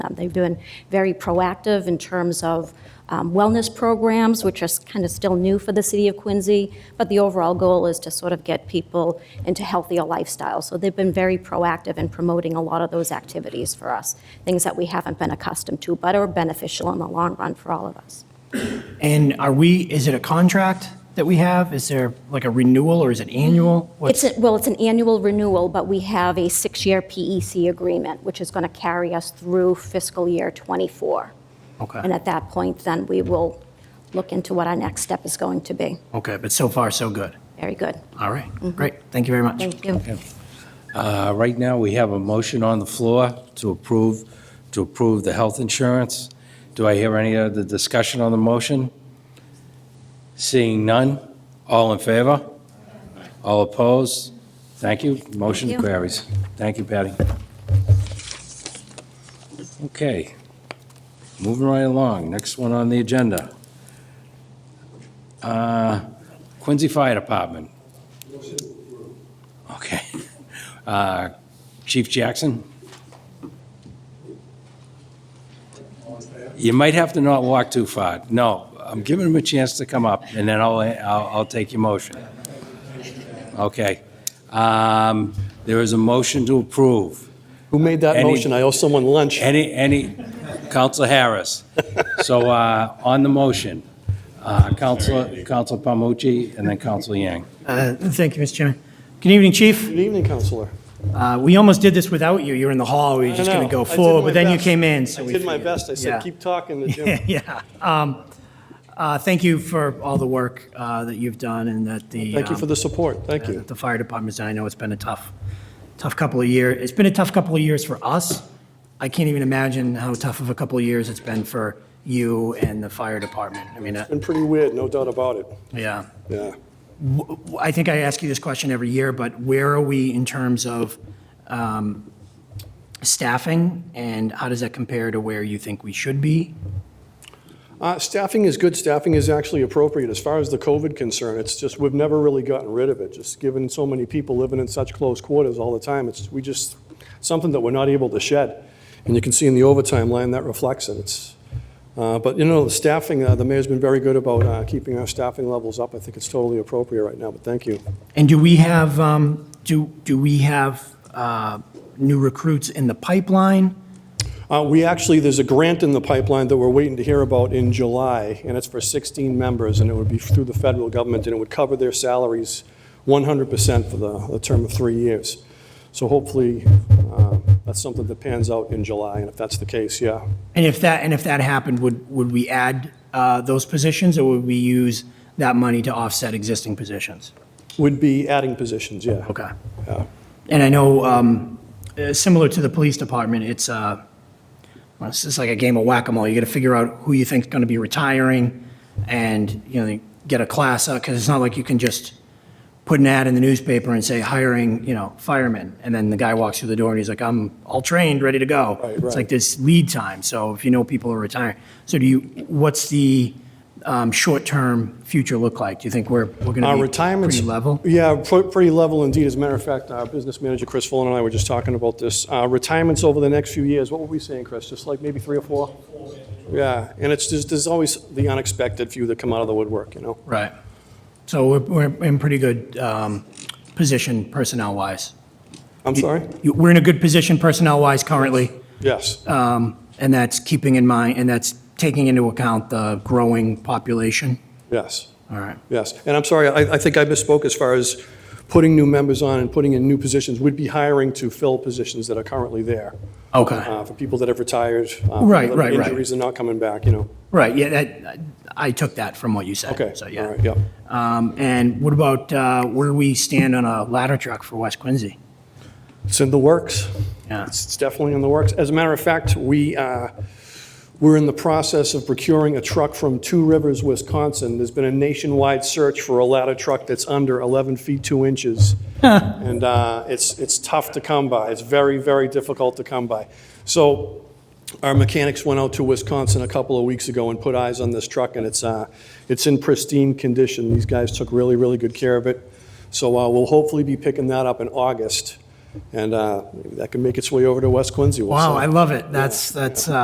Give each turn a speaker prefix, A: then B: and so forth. A: on. Um, They've been very proactive in terms of um, wellness programs, which are kind of still new for the city of Quincy, but the overall goal is to sort of get people into healthier lifestyles. So they've been very proactive in promoting a lot of those activities for us, things that we haven't been accustomed to, but are beneficial in the long run for all of us.
B: And are we, is it a contract that we have? Is there like a renewal or is it annual?
A: It's,
B: What's,
A: a- well, it's an annual renewal, but we have a six-year PEC agreement, which is going to carry us through fiscal year '24. And
B: okay,
A: at that point, then we will look into what our next step is going to be.
B: okay, but so far, so good.
A: Very good.
B: All right, great, thank you very much.
A: Mm-hmm. Thank you.
C: Uh, Right now, we have a motion on the floor to approve, to approve the health insurance. Do I hear any other discussion on the motion? Seeing none, all in favor? All opposed? Thank you, motion
A: Thank you.
C: carries. Thank you, Patty. Okay, moving right along, next one on the agenda. Uh, Quincy Fire Department. Okay. Uh, Chief Jackson? You might have to not walk too far. No, I'm giving him a chance to come up, and then I'll, I'll, I'll take your motion. Okay. Um, There is a motion to approve.
D: Who made that
C: Any-
D: motion? I owe someone lunch.
C: Any, any, Counselor Harris. So uh, on the motion, uh, Counselor, Counselor Palmucci, and then Counselor Yang.
B: Uh, Thank you, Mr. Chairman. Good evening, Chief.
D: Good evening, Counselor.
B: Uh, We almost did this without you, you were in the hall, we were just going to go forward, but then you came in, so we.
D: I did my
B: figured-
D: best. I
B: Yeah.
D: said, keep talking to Jim.
B: Yeah. Um, uh, Thank you for all the work uh, that you've done and that the.
D: Thank you for
B: um,
D: the support. Thank
B: that
D: you.
B: The fire department's, done. I know it's been a tough, tough couple of years. It's been a tough couple of years for us. I can't even imagine how tough of a couple of years it's been for you and the fire department. I mean, uh,
D: Been pretty weird, no doubt about it.
B: yeah.
D: Yeah.
B: W- w- I think I ask you this question every year, but where are we in terms of um, staffing? And how does that compare to where you think we should be?
D: Uh, Staffing is good. Staffing is actually appropriate. As far as the COVID concern, it's just, we've never really gotten rid of it. Just given so many people living in such close quarters all the time, it's, we just, something that we're not able to shed. And you can see in the overtime line, that reflects it. It's, uh, but you know, the staffing, uh, the mayor's been very good about uh, keeping our staffing levels up. I think it's totally appropriate right now, but thank you.
B: And do we have, um, do, do we have uh, new recruits in the pipeline?
D: Uh, We actually, there's a grant in the pipeline that we're waiting to hear about in July, and it's for 16 members, and it would be through the federal government, and it would cover their salaries 100% for the the term of three years. So hopefully, uh, that's something that pans out in July, and if that's the case, yeah.
B: And if that, and if that happened, would, would we add uh, those positions, or would we use that money to offset existing positions?
D: Would be adding positions, yeah.
B: Okay.
D: Yeah.
B: And I know, um, uh, similar to the police department, it's, uh, well, it's just like a game of whack-a-mole. You got to figure out who you think's going to be retiring, and, you know, get a class up, because it's not like you can just put an ad in the newspaper and say, hiring, you know, firemen, and then the guy walks through the door and he's like, I'm all trained, ready to go.
D: Right,
B: It's
D: right.
B: like this lead time, so if you know people are retiring. So do you, what's the um, short-term future look like? Do you think we're, we're going to
D: Our
B: be
D: retirement's...
B: pretty level?
D: Yeah, pr- pretty level indeed. As a matter of fact, our business manager, Chris Fullen, and I were just talking about this. Uh, Retirements over the next few years, what were we saying, Chris? Just like maybe three or four? Yeah, and it's, just there's always the unexpected few that come out of the woodwork, you know?
B: Right. So we're, we're in pretty good um, position personnel-wise.
D: I'm sorry?
B: You- We're in a good position personnel-wise currently,
D: Yes,
B: Uh. and that's keeping in mind, and that's taking into account the growing population.
D: yes,
B: All right.
D: yes. And I'm sorry, I I think I misspoke as far as putting new members on and putting in new positions. We'd be hiring to fill positions that are currently there
B: Okay.
D: uh, for people that have retired. uh, people
B: Right,
D: that have
B: right, right.
D: Injuries and not coming back, you know?
B: Right, yeah, that, I took that from what you said.
D: Okay,
B: So,
D: all
B: yeah.
D: right, yeah.
B: Um, And what about uh, where do we stand on a ladder truck for West Quincy?
D: It's in the works.
B: Yeah.
D: It's it's definitely in the works. As a matter of fact, we, uh, we're in the process of procuring a truck from Two Rivers, Wisconsin. There's been a nationwide search for a ladder truck that's under 11 feet 2 inches. And uh, it's, it's tough to come by. It's very, very difficult to come by. So our mechanics went out to Wisconsin a couple of weeks ago and put eyes on this truck, and it's, uh, it's in pristine condition. These guys took really, really good care of it. So uh, we'll hopefully be picking that up in August, and uh, that can make its way over to West Quincy. We'll
B: Wow,
D: see.
B: I love it. That's, that's, uh,